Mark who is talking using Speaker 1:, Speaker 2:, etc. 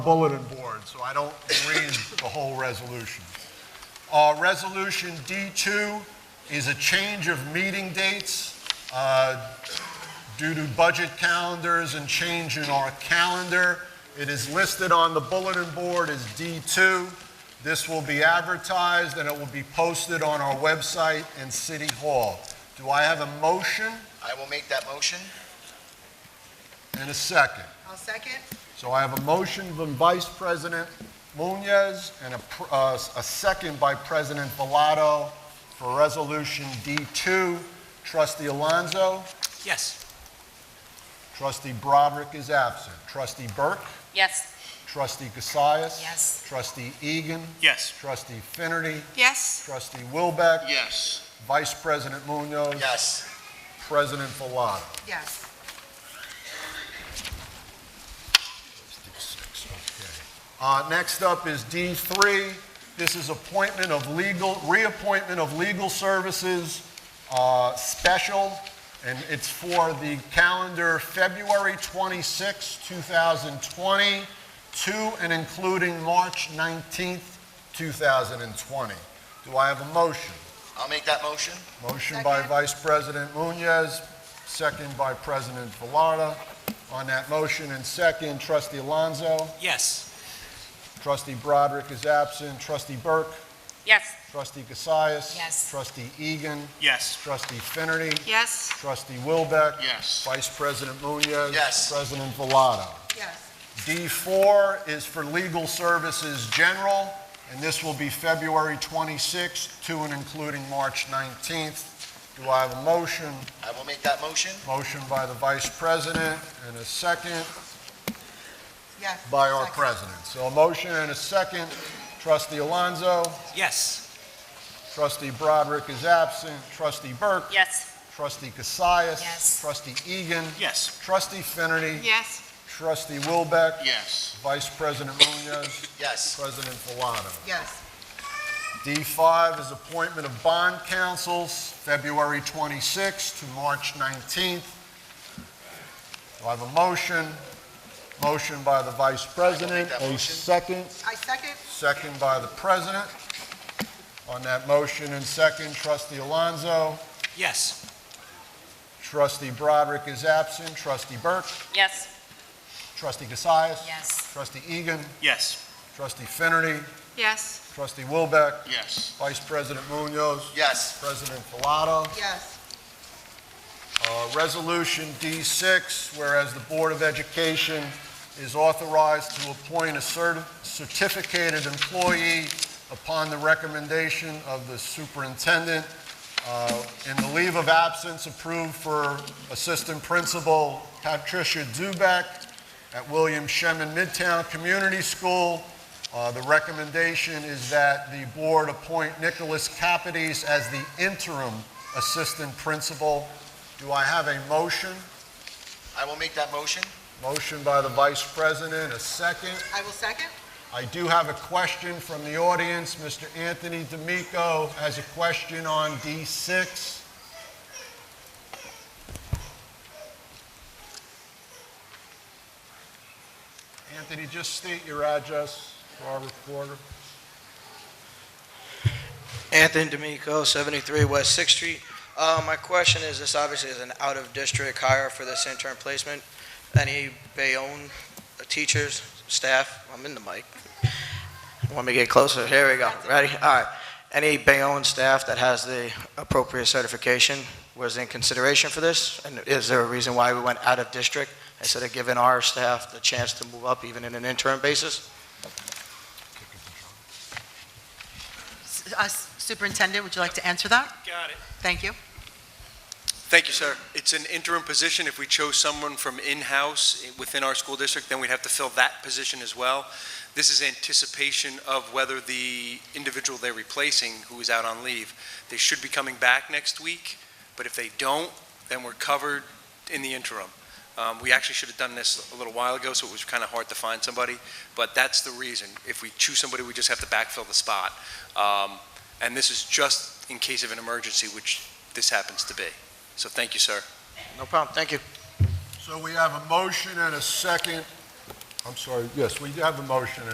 Speaker 1: bulletin board, so I don't read the whole resolution. Uh, Resolution D2 is a change of meeting dates uh, due to budget calendars and change in our calendar. It is listed on the bulletin board as D2. This will be advertised and it will be posted on our website and City Hall. Do I have a motion
Speaker 2: I will make that motion.
Speaker 1: and a second?
Speaker 3: I'll second.
Speaker 1: So I have a motion from Vice President Munoz and a, pr- uh, a second by President Bellato for Resolution D2. Trustee Alonso,
Speaker 4: Yes.
Speaker 1: Trustee Broderick is absent. Trustee Burke,
Speaker 5: Yes.
Speaker 1: Trustee Cassius.
Speaker 5: Yes.
Speaker 1: Trustee Egan,
Speaker 4: Yes.
Speaker 1: Trustee Finerty,
Speaker 3: Yes.
Speaker 1: Trustee Wilbeck,
Speaker 2: Yes.
Speaker 1: Vice President Munoz.
Speaker 2: Yes.
Speaker 1: President Bellato.
Speaker 3: Yes.
Speaker 1: Uh, Next up is D3. This is appointment of legal, reappointment of legal services uh, special, and it's for the calendar February 26, 2020, to and including March 19, 2020. Do I have a motion?
Speaker 2: I'll make that motion.
Speaker 1: Motion by
Speaker 3: Second.
Speaker 1: Vice President Munoz, second by President Velarde. On that motion and second, Trustee Alonso.
Speaker 4: Yes.
Speaker 1: Trustee Broderick is absent. Trustee Burke,
Speaker 5: Yes.
Speaker 1: Trustee Cassius.
Speaker 5: Yes.
Speaker 1: Trustee Egan,
Speaker 4: Yes.
Speaker 1: Trustee Finerty,
Speaker 3: Yes.
Speaker 1: Trustee Wilbeck.
Speaker 2: Yes.
Speaker 1: Vice President Munoz.
Speaker 2: Yes.
Speaker 1: President Villado.
Speaker 3: Yes.
Speaker 1: D4 is for legal services general, and this will be February 26th to and including March 19th. Do I have a motion?
Speaker 2: I will make that motion.
Speaker 1: Motion by the Vice President and a second
Speaker 3: Yes.
Speaker 1: by our
Speaker 3: Second.
Speaker 1: President. So a motion and a second. Trustee Alonso.
Speaker 4: Yes.
Speaker 1: Trustee Broderick is absent. Trustee Burke.
Speaker 5: Yes.
Speaker 1: Trustee Cassius.
Speaker 5: Yes.
Speaker 1: Trustee Egan.
Speaker 4: Yes.
Speaker 1: Trustee Finerty.
Speaker 3: Yes.
Speaker 1: Trustee Wilbeck.
Speaker 2: Yes.
Speaker 1: Vice President Munoz.
Speaker 2: Yes.
Speaker 1: President Villado.
Speaker 3: Yes.
Speaker 1: D5 is appointment of bond councils, February 26th to March 19th. Do I have a motion? Motion by the Vice President.
Speaker 2: that
Speaker 1: A
Speaker 2: motion.
Speaker 1: second.
Speaker 3: I second.
Speaker 1: Second by the President. On that motion and second, Trustee Alonso.
Speaker 4: Yes.
Speaker 1: Trustee Broderick is absent. Trustee Burke.
Speaker 5: Yes.
Speaker 1: Trustee Cassius.
Speaker 5: Yes.
Speaker 1: Trustee Egan.
Speaker 4: Yes.
Speaker 1: Trustee Finerty.
Speaker 3: Yes.
Speaker 1: Trustee Wilbeck.
Speaker 2: Yes.
Speaker 1: Vice President Munoz.
Speaker 2: Yes.
Speaker 1: President Bellato.
Speaker 3: Yes.
Speaker 1: Uh, Resolution D6, whereas the Board of Education is authorized to appoint a certi- certificated employee upon the recommendation of the superintendent uh, in the leave of absence approved for Assistant Principal Patricia Dubek at William Shemin Midtown Community School. Uh, The recommendation is that the board appoint Nicholas Capides as the interim Assistant Principal do I have a motion?
Speaker 2: I will make that motion.
Speaker 1: Motion by the Vice President, a second.
Speaker 3: I will second.
Speaker 1: I do have a question from the audience. Mr. Anthony D'Amico has a question on D6. Anthony, just state your address for our reporter.
Speaker 6: Anthony D'Amico, 73 West 6th Street. Uh, My question is, this obviously is an out-of-district hire for this intern placement. Any Bayonne teachers, staff, I'm in the mic. Want me to get closer? Here we go. Ready? All right. Any Bayonne staff that has the appropriate certification was in consideration for this? And is there a reason why we went out of district instead of giving our staff the chance to move up even in an interim basis?
Speaker 3: Uh, Superintendent, would you like to answer that?
Speaker 4: Got it.
Speaker 3: Thank you.
Speaker 7: Thank you, sir. It's an interim position. If we chose someone from in-house within our school district, then we'd have to fill that position as well. This is anticipation of whether the individual they're replacing, who is out on leave, they should be coming back next week, but if they don't, then we're covered in the interim. Um, We actually should have done this a little while ago, so it was kind of hard to find somebody, but that's the reason. If we choose somebody, we just have to backfill the spot. Um, And this is just in case of an emergency, which this happens to be. So thank you, sir.
Speaker 6: No problem. Thank you.
Speaker 1: So we have a motion and a second I'm sorry, yes, we have a motion